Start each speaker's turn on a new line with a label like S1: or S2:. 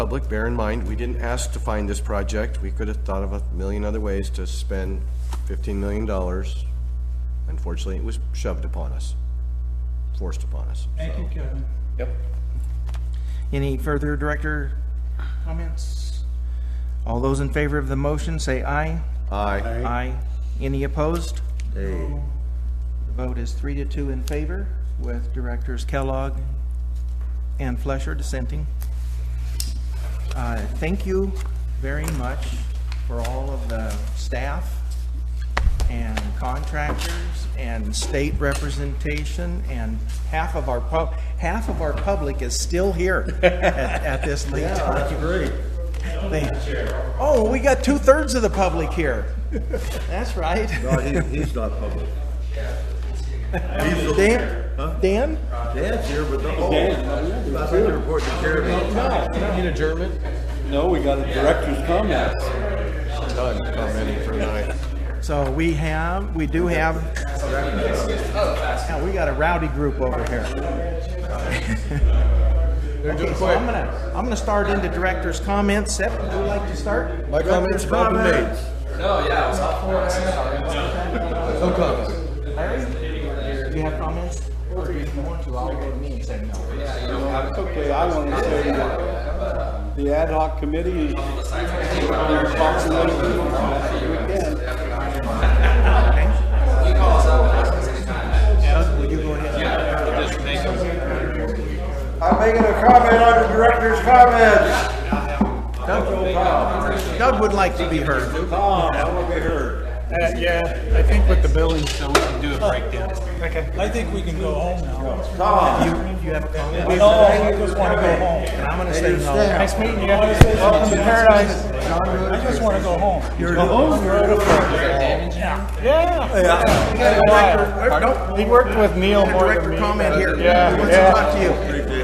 S1: public, bear in mind, we didn't ask to find this project. We could have thought of a million other ways to spend fifteen million dollars. Unfortunately, it was shoved upon us, forced upon us.
S2: Thank you, Kevin.
S1: Yep.
S3: Any further, Director?
S2: Comments?
S3: All those in favor of the motion, say aye.
S1: Aye.
S3: Aye. Any opposed? The vote is three to two in favor, with Directors Kellogg and Flesher dissenting. Uh, Thank you very much for all of the staff and contractors and state representation and half of our pub, half of our public is still here at, at this late time.
S4: great.
S3: They- Oh, we got two-thirds of the public here. That's right.
S4: No, he's, he's not public. He's the
S3: Dan,
S4: Huh?
S3: Dan?
S4: Dan's here, but the whole, I think they're reporting to Jeremy.
S1: In adjournment?
S5: No, we got a director's comments.
S1: Done, commenting for tonight.
S3: So we have, we do have. Yeah, we got a rowdy group over here. Okay, so I'm gonna, I'm gonna start into director's comments. Seth, would you like to start?
S1: My comments have all been made. No, yeah, No comments.
S3: Larry? Do you have comments? Or if you want to, I'll go to me and say no.
S5: Quickly, I want to say that the ad hoc committee is responsible for this weekend.
S4: I'm making a comment on the director's comments.
S3: Doug would like to be heard.
S4: Tom, I want to be heard.
S6: Uh, Yeah, I think with the building, so we can do a breakdown. Okay.
S2: I think we can go home now.
S4: Tom,
S3: You, you have a comment?
S2: No, I just want to go home.
S3: And I'm gonna say no.
S6: Nice meeting you.
S2: Welcome to paradise. I just want to go home.
S6: Yeah.
S3: We got a director-
S6: He worked with Neil
S3: a
S6: more than
S3: Director
S6: me.
S3: comment here.
S6: Yeah,
S3: He wants to
S6: yeah.
S3: talk to you.